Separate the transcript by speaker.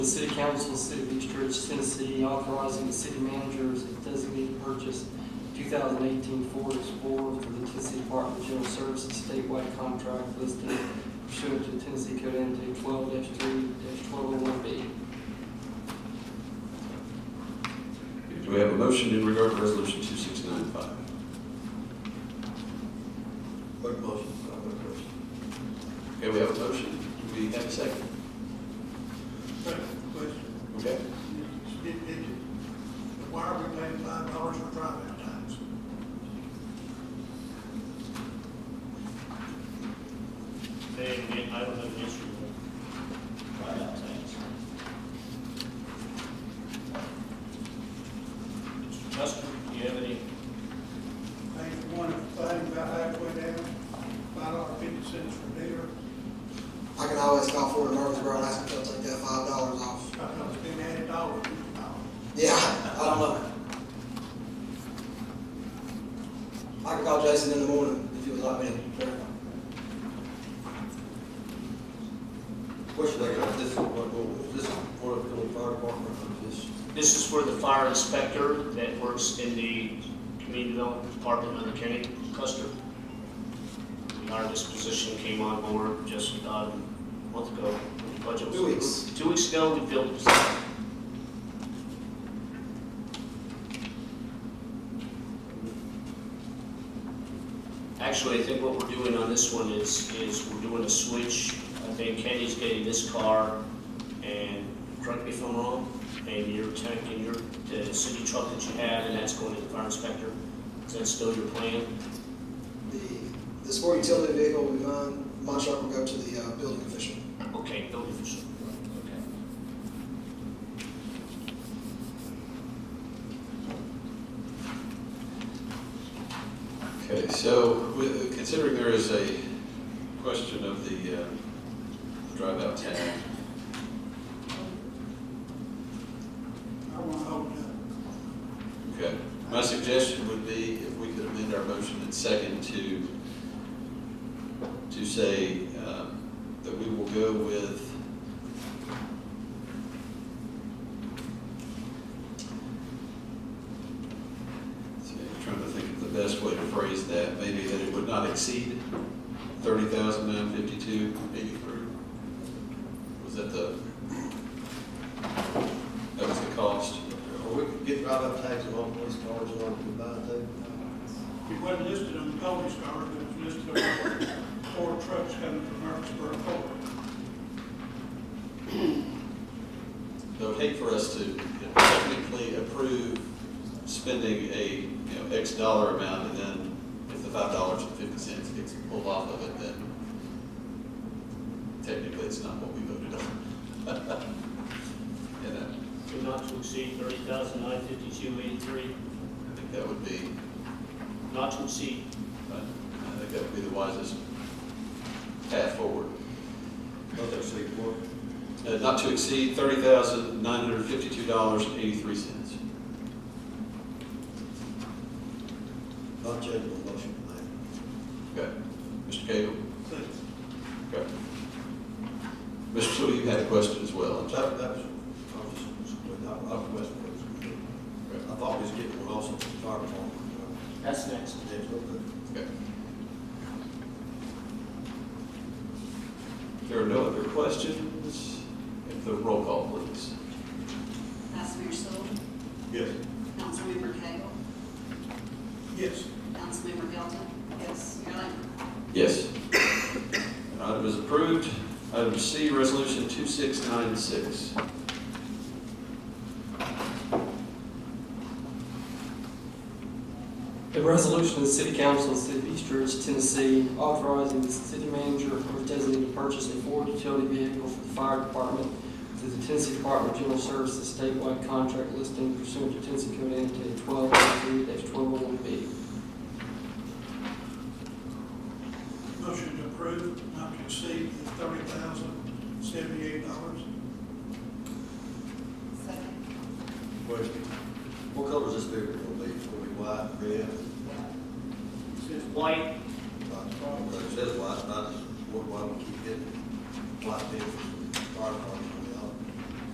Speaker 1: The City Council, of the City of East Ridge, Tennessee, authorizing the city managers and designated purchase 2018 Ford Explorer for the Tennessee Department of General Services statewide contract listed pursuant to Tennessee Code Annotated 12-3-1201B.
Speaker 2: Do we have a motion in regard to resolution two six nine five? Clerk motion. Okay, we have a motion. Do we have a second?
Speaker 3: Question,
Speaker 2: Okay.
Speaker 3: It- it- why are we paying five dollars for driving times?
Speaker 4: They, they, I don't have an issue with buyout things. Mr. Custer, do you have any,
Speaker 3: Paying for one, paying about halfway down, five dollar fifty cents for beer,
Speaker 5: I can always call Ford and Murfreesboro and ask them to take that five dollars off.
Speaker 3: I know it's been added dollars.
Speaker 5: Yeah, I don't know. I can call Jason in the morning if he would like me to.
Speaker 6: Question I got, this, what, what, is this for the Philly Fire Department or is this?
Speaker 4: this is for the fire inspector that works in the community development department under Kenny Custer. We hired this position, came on board just uh, a month ago, when the budget was.
Speaker 5: Two weeks.
Speaker 4: Two weeks ago, we filled the position. Actually, I think what we're doing on this one is, is we're doing a switch. I think Kenny's getting this car, and correct me if I'm wrong, and your tank and your, the city truck that you have, and that's going to the fire inspector. Is that still your plan?
Speaker 5: The, the sport utility vehicle will be mine, my truck will go to the, uh, building official.
Speaker 4: Okay, building official. Okay.
Speaker 2: Okay, so with- considering there is a question of the uh, drive-out tax,
Speaker 3: I want to hold it
Speaker 2: okay, my suggestion would be if we could amend our motion and second to, to say um, that we will go with See, I'm trying to think of the best way to phrase that, maybe that it would not exceed thirty thousand nine fifty-two eighty-three. Was that the, that was the cost?
Speaker 6: Or we could get right up tags on all police cars and all combined too?
Speaker 3: up. It wasn't listed on the police car, but it's listed on four trucks coming from Murfreesboro Ford.
Speaker 2: I would hate for us to technically approve spending a, you know, X dollar amount, and then if the five dollars and fifty cents gets pulled off of it, then technically it's not what we voted on. You know?
Speaker 4: Do not to exceed thirty thousand nine fifty-two eighty-three,
Speaker 2: I think that would be,
Speaker 4: not to exceed.
Speaker 2: uh, I think that would be the wisest path forward.
Speaker 6: Not that city court.
Speaker 2: Uh, Not to exceed thirty thousand nine hundred fifty-two dollars and eighty-three cents.
Speaker 6: not changing the motion tonight.
Speaker 2: Okay. Mr. Cagle?
Speaker 3: Thanks.
Speaker 2: Okay. Mr. Sewell, you had a question as well. I'm sorry.
Speaker 6: That, that was, I was, I was questioning. I thought we was getting one also from the fire department.
Speaker 4: That's next.
Speaker 6: but it's okay.
Speaker 2: Okay. There are no other questions? If the roll call, please.
Speaker 7: Vice Mayor Sewell,
Speaker 6: Yes.
Speaker 7: Councilmember Cagle,
Speaker 3: Yes,
Speaker 7: Councilmember Hilton. Yes. Mayor Lambert.
Speaker 2: Yes. Item is approved. Item C, Resolution 2696.
Speaker 1: A resolution of the City Council of the City of East Ridge, Tennessee, authorizing the city manager or designated to purchase a Ford utility vehicle for the fire department through the Tennessee Department of General Services statewide contract listing pursuant to Tennessee Code Annotated 12-3-1201B.
Speaker 3: motion to approve, not to exceed thirty thousand seventy-eight dollars.
Speaker 7: Second.
Speaker 6: Question. What color is this vehicle gonna be? It's gonna be white, red?
Speaker 3: Says
Speaker 4: White,
Speaker 6: black. It says white, and I just, why, why we keep getting white vehicles?